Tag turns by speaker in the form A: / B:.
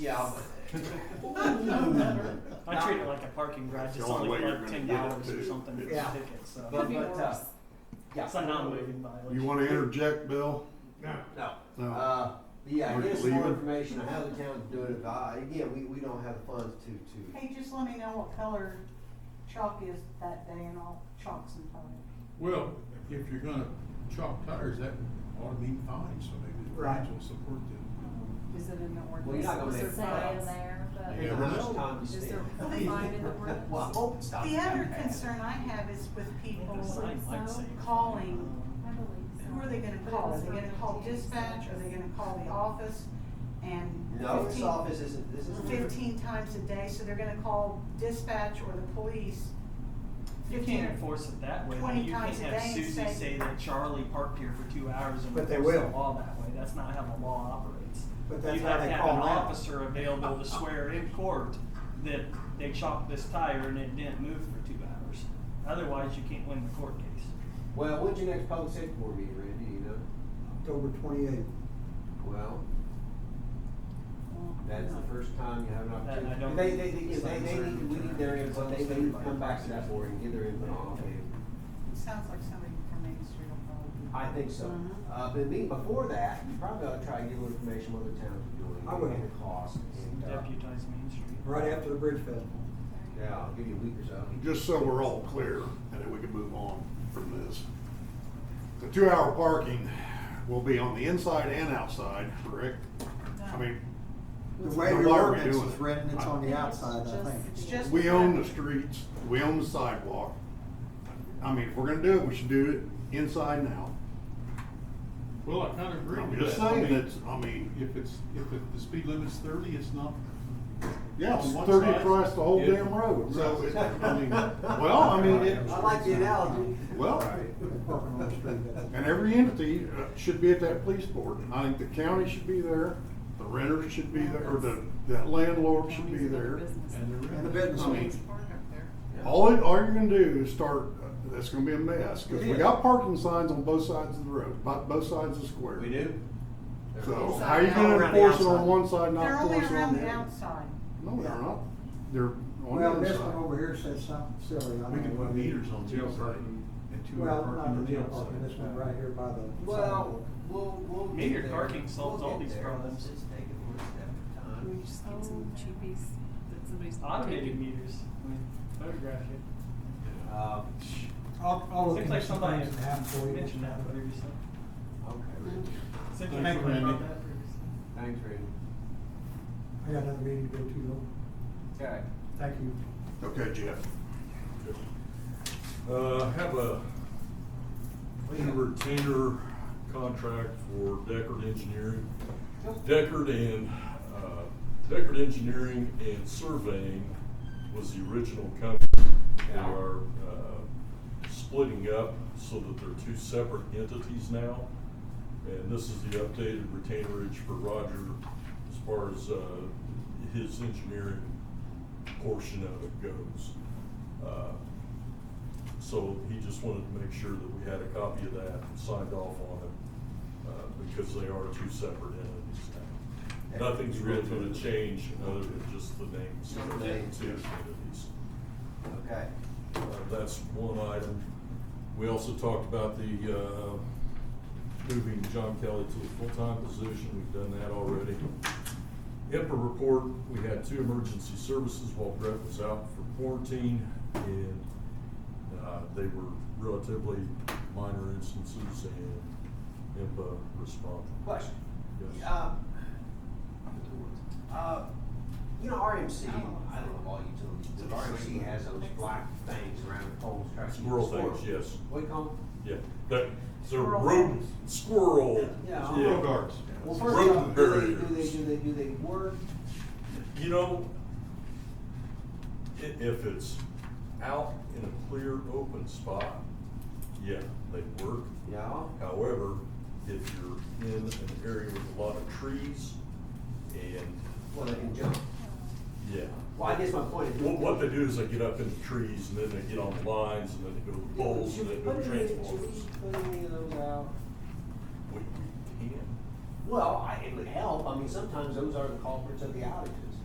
A: Yeah,
B: I treat it like a parking garage.
C: That's
B: It's
C: the
B: only
C: only way you're
B: like
C: gonna
B: ten
C: get it,
B: dollars or
C: too.
B: something for
A: Yeah.
B: a ticket, so.
A: But-
D: Could be
A: but, uh,
D: worse.
A: yeah.
B: It's a non-waiting violation.
C: You wanna interject, Bill?
A: No.
C: No.
A: Uh, yeah,
C: Or
A: get us
C: leave
A: more
C: it.
A: information on how the town's doing it. Uh, again, we, we don't have the funds to, to.
E: Hey, just let me know what color chalk is that day and I'll chalk some color.
F: Well, if you're gonna chalk tires, that ought to be fine, so maybe the
A: Right.
F: fines will support that.
D: Is it in the ordinance?
A: Well, you're not gonna
D: Is
A: make
D: there
A: it up.
D: fines?
G: in there, but.
F: You never know.
D: Is there fine in the ordinance?
A: Well, I hope it's not.
E: The
A: that
E: other
A: bad.
E: concern I have is with people,
B: The sign might say-
E: calling.
G: I believe so.
E: who are they gonna call? Are they gonna call dispatch? Are they gonna call the office? And
A: No, this
E: fifteen-
A: office isn't, this isn't.
E: fifteen times a day, so they're gonna call dispatch or the police.
B: You
E: 15
B: can't enforce it that way.
E: 20
B: You can't
E: times a
B: have
E: day and
B: Susie
E: say-
B: say that Charlie parked here for two hours and
A: But they
B: enforce the
A: will.
B: law that way. That's not how the law operates.
A: But that's
B: You
A: how
B: have
A: they
B: to have
A: call
B: an
A: now.
B: officer available to swear in court that they chopped this tire and it didn't move for two hours. Otherwise, you can't win the court case.
A: Well, when's your next public safety board meeting, Randy, you know?
H: October twenty-eighth.
A: Well,
E: Well,
A: that's the first time you have an
B: That- I
A: opportunity.
B: don't
A: They, they,
B: think
A: they,
B: it's
A: they, they
B: uncertain.
A: need, to- we need their input, they, they need to come back to that board and give their input on it.
E: It sounds like somebody from Main Street will probably.
A: I think so.
E: Mhm.
D: Mm-hmm.
A: Uh, but being before that, you probably ought to try to get a little information what the town's doing.
H: I would.
A: And the cost and, uh,
B: Deputize Main Street.
H: Right after the Bridge Festival.
A: yeah, I'll give you a week or so.
C: Just so we're all clear, and then we can move on from this. The two-hour parking will be on the inside and outside, correct? I mean,
H: The way
C: Why
H: the
C: are we
H: ordinance
C: doing
H: is
C: it?
H: written, it's on the
G: It's
H: outside, I
G: just-
H: think.
E: It's just.
C: we own the streets, we own the sidewalk. I mean, if we're gonna do it, we should do it inside and out.
F: Well, I kinda agree
C: I'm
F: with that.
C: just
F: I
C: saying
F: mean,
C: that's, I mean,
F: If it's, if it- the speed limit's thirty, it's not,
C: yeah, it's
F: on one
C: thirty
F: side,
C: across the whole
F: yeah.
C: damn road, so it, I mean, well, I mean, it,
A: I like the analogy.
C: well.
H: Parking on the street, that's-
C: And every entity uh, should be at that police board. And I think the county should be there, the renters should be there, or the, the landlord should be there.
F: and they're.
H: And the business
C: I mean,
H: owners.
C: all, it- all you're gonna do is start, uh, it's gonna be a mess, cause we
H: It is.
C: got parking signs on both sides of the road, bo- both sides of the square.
A: We do?
C: So,
E: Inside
C: how are you
E: and
C: gonna
B: around the
C: enforce it on
B: outside.
C: one side,
E: They're
C: not
E: only
C: enforce it on
E: around
C: the
E: the
C: other?
E: outside.
C: No, they're not. They're
H: Well,
C: on the
H: this
C: other
H: one over
C: side.
H: here says something silly. I
F: We
H: don't
F: can
H: know
F: put
H: what it is.
F: meters on
I: Jail
F: jail parking
I: parking.
F: and two
H: Well,
F: hour
H: not
F: parking
H: the jail
F: on
H: parking,
F: the
H: this one right here by the.
A: Well,
H: sidewalk.
A: we'll, we'll. get
B: Metered
A: there.
B: parking solves
A: We'll
B: all
A: get
B: these
A: there.
B: problems.
A: Let's just take it one step at a time.
D: Can we just get some cheapies that somebody's.
B: Automated meters, I mean, photograph it.
A: Uh,
H: All, all the
B: Seems like somebody
H: concerns that happen for you.
B: mentioned that previously.
A: okay, Randy.
B: Seems like
F: Thank you,
B: somebody brought
F: Randy.
B: that previously.
A: Thanks, Randy.
H: I got another meeting to go to though.
A: Okay.
H: Thank you.
C: Okay, Jeff.
I: Uh, have a a retainer contract for Deckard Engineering. Deckard and, uh, Deckard Engineering and Surveying was the original company. They
A: Yeah.
I: are, uh, splitting up so that they're two separate entities now. And this is the updated retainerage for Roger as far as, uh, his engineering portion of it goes. Uh, so he just wanted to make sure that we had a copy of that and signed off on it, uh, because they are two separate entities now. Nothing's really gonna change other than just the names of the two
A: Names, yeah.
I: entities.
A: Okay.
I: Uh, That's one item. We also talked about the, uh, moving John Kelly to a full-time position. We've done that already. HIPAA report, we had two emergency services while Brett was out for quarantine, and uh, they were relatively minor instances, and HIPAA responded.
A: Question.
I: Yes.
A: Uh, uh, you know, RMC, I don't know all utilities, but RMC has those black things around the poles. trying to keep
I: Squirrel
A: the squirrels.
I: things, yes.
A: What do you call 'em?
I: Yeah, that, the
E: Squirrel
I: rodent,
E: guards.
I: squirrel.
A: Yeah.
F: Road guards.
A: Well,
I: It's
A: first off,
I: rodent
A: do they, do they,
I: barriers.
A: do they, do they work?
I: You know, i- if it's out in a clear, open spot, yeah, they work.
A: Yeah.
I: However, if you're in an area with a lot of trees and,
A: Well, they can jump.
I: yeah.
A: Well, I guess my point is.
I: What, what they do is they get up in the trees and then they get on the lines and then they go to the poles and then they go
A: What
I: to
A: do they do?
I: transformers.
A: Put any of those out?
I: We, we can.
A: Well, I, it would help, I mean, sometimes those are the culprits of the outages.